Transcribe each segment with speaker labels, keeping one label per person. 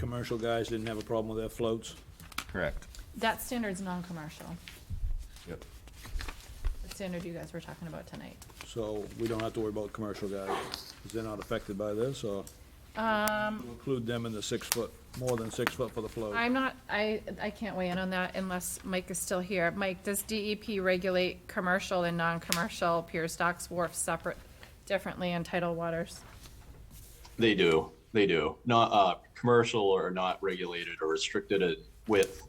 Speaker 1: commercial guys didn't have a problem with their floats.
Speaker 2: Correct.
Speaker 3: That standard's non-commercial,
Speaker 2: Yep.
Speaker 3: the standard you guys were talking about tonight.
Speaker 1: So we don't have to worry about commercial guys, 'cause they're not affected by this, or
Speaker 3: Um,
Speaker 1: include them in the six foot, more than six foot for the float.
Speaker 3: I'm not, I, I can't weigh in on that unless Mike is still here. Mike, does DEP regulate commercial and non-commercial piers, docks, wharfs separate, differently in tidal waters?
Speaker 4: They do. They do. Not uh, commercial or not regulated or restricted at width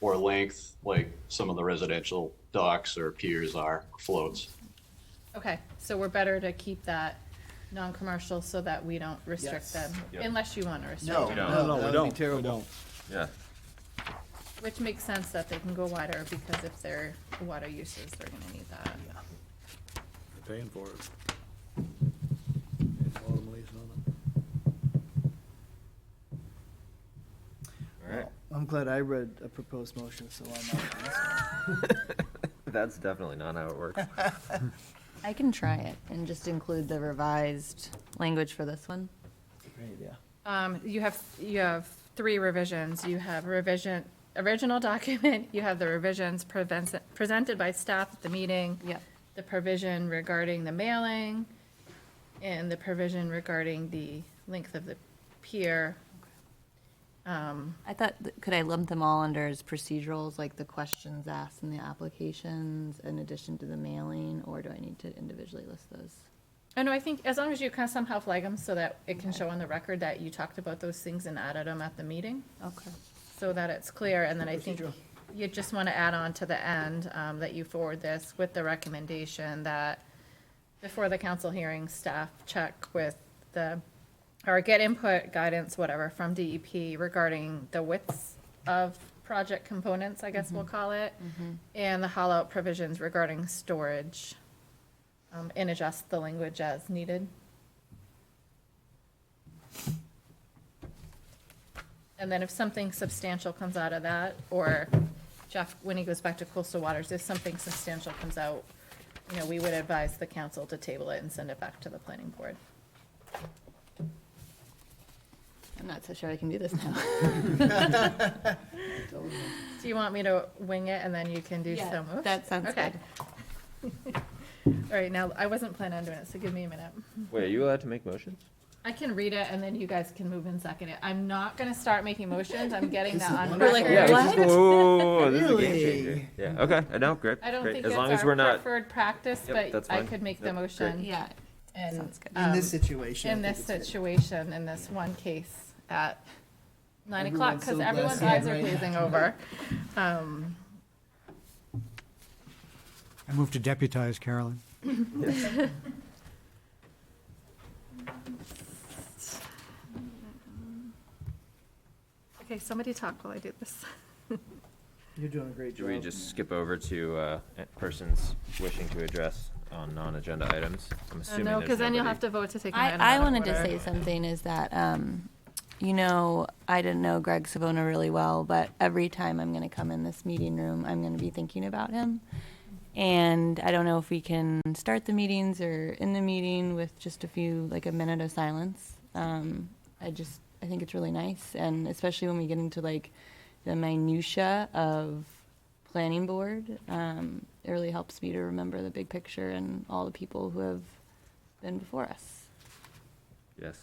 Speaker 4: or length, like some of the residential docks or piers are floats.
Speaker 3: Okay, so we're better to keep that non-commercial so that we don't restrict
Speaker 5: Yes.
Speaker 3: them,
Speaker 2: Yep.
Speaker 3: unless you want to restrict
Speaker 5: No,
Speaker 3: them.
Speaker 1: No,
Speaker 5: no,
Speaker 1: no, we
Speaker 5: that would be
Speaker 1: don't, we
Speaker 5: terrible.
Speaker 1: don't.
Speaker 2: Yeah.
Speaker 3: Which makes sense that they can go wider, because if they're water uses, they're gonna need that.
Speaker 1: They're Paying for it. It's bottom lease on it.
Speaker 2: All right.
Speaker 5: I'm glad I read a proposed motion, so I'm not.
Speaker 2: That's definitely not how it works.
Speaker 6: I can try it and just include the revised language for this one.
Speaker 5: Right, yeah.
Speaker 3: Um, you have, you have three revisions. You have revision, original document, you have the revisions prevents- presented by staff at the meeting.
Speaker 6: Yep.
Speaker 3: The provision regarding the mailing, and the provision regarding the length of the pier.
Speaker 6: I thought, th- could I lump them all under as procedurals, like the questions asked in the applications in addition to the mailing, or do I need to individually list those?
Speaker 3: I know, Oh, I think as long as you kind of somehow flag them so that it can show on the record that you talked about those things and added them at the meeting.
Speaker 6: Okay.
Speaker 3: so that it's clear, and then I think you just want to add on to the end, um, that you forward this with the recommendation that before the council hearing, staff check with the, or get input, guidance, whatever, from DEP regarding the widths of project components, I guess we'll call it, and the hollow provisions regarding storage, um, and adjust the language as needed. And then if something substantial comes out of that, or Jeff, when he goes back to coastal waters, if something substantial comes out, you know, we would advise the council to table it and send it back to the planning board.
Speaker 6: I'm not so sure I can do this now.
Speaker 3: Do you want me to wing it and then you can do
Speaker 6: Yeah,
Speaker 3: so moves?
Speaker 6: that sounds
Speaker 3: Okay.
Speaker 6: good.
Speaker 3: All right, now, I wasn't planning on doing it, so give me a minute.
Speaker 2: Wait, are you allowed to make motions?
Speaker 3: I can read it and then you guys can move and second it. I'm not gonna start making motions, I'm getting that on
Speaker 6: We're like,
Speaker 3: record.
Speaker 6: what?
Speaker 2: Whoa, this is a game
Speaker 5: Really?
Speaker 2: changer. Yeah, okay, I know, great,
Speaker 3: I don't
Speaker 2: great.
Speaker 3: think
Speaker 2: As
Speaker 3: it's
Speaker 2: long as we're
Speaker 3: our
Speaker 2: not,
Speaker 3: preferred practice,
Speaker 2: Yep,
Speaker 3: but
Speaker 2: that's
Speaker 3: I
Speaker 2: fine.
Speaker 3: could make the
Speaker 2: Yep, great.
Speaker 3: motion.
Speaker 6: Yeah,
Speaker 3: and,
Speaker 6: Sounds good.
Speaker 5: In
Speaker 3: um,
Speaker 5: this situation.
Speaker 3: in
Speaker 5: I think
Speaker 3: this
Speaker 5: it's good.
Speaker 3: situation, in this one case at nine o'clock, because everyone's
Speaker 5: Everyone's so
Speaker 3: eyes are
Speaker 5: glassy-eyed right
Speaker 3: glazing over. Um,
Speaker 7: I move to deputize Carolyn.
Speaker 3: Okay, somebody talk while I do this.
Speaker 5: You're doing a great
Speaker 2: do
Speaker 5: job.
Speaker 2: we just skip over to, uh, persons wishing to address on non-agenda items? I'm assuming
Speaker 3: Uh, No,
Speaker 2: there's
Speaker 3: because then you'll
Speaker 2: nobody-
Speaker 3: have to vote to take an item
Speaker 6: I, I
Speaker 3: out of
Speaker 6: wanted to
Speaker 3: order.
Speaker 6: say something is that, um, you know, I didn't know Greg Savona really well, but every time I'm gonna come in this meeting room, I'm gonna be thinking about him. And I don't know if we can start the meetings or in the meeting with just a few, like a minute of silence. Um, I just, I think it's really nice, and especially when we get into like the minutia of planning board, um, it really helps me to remember the big picture and all the people who have been before us.
Speaker 2: Yes.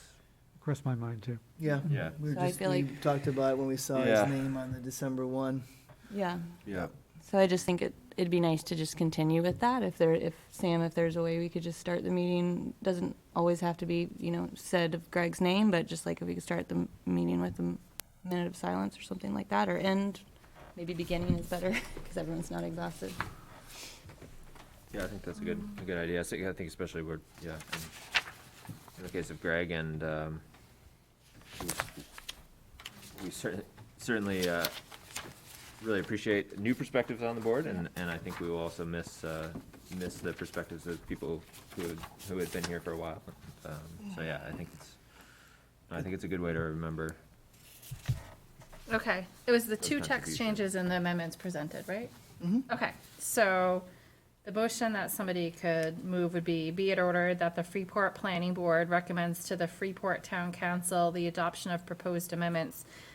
Speaker 7: Crossed my mind, too.
Speaker 5: Yeah.
Speaker 2: Yeah.
Speaker 5: We were
Speaker 6: So I
Speaker 5: just,
Speaker 6: feel
Speaker 5: we
Speaker 6: like-
Speaker 5: talked about it when we saw
Speaker 2: Yeah.
Speaker 5: his name on the December one.
Speaker 6: Yeah,
Speaker 2: Yeah.
Speaker 6: so I just think it, it'd be nice to just continue with that, if there, if, Sam, if there's a way we could just start the meeting, doesn't always have to be, you know, said of Greg's name, but just like if we could start the m- meeting with a m- minute of silence or something like that, or end, maybe beginning is better, because everyone's not exhausted.
Speaker 2: Yeah, I think that's a good, a good idea. I think, I think especially we're, yeah, in, in the case of Greg and, um, we- we certainly, certainly, uh, really appreciate new perspectives on the board and, and I think we will also miss, uh, miss the perspectives of people who had, who had been here for a while. Um, so yeah, I think it's, I think it's a good way to remember.
Speaker 3: Okay, it was the
Speaker 2: Those
Speaker 3: two text
Speaker 2: contributions.
Speaker 3: changes and the amendments presented, right?
Speaker 5: Mm-hmm.
Speaker 3: Okay, so the motion that somebody could move would be, be it ordered that the Freeport Planning Board recommends to the Freeport Town Council the adoption of proposed amendments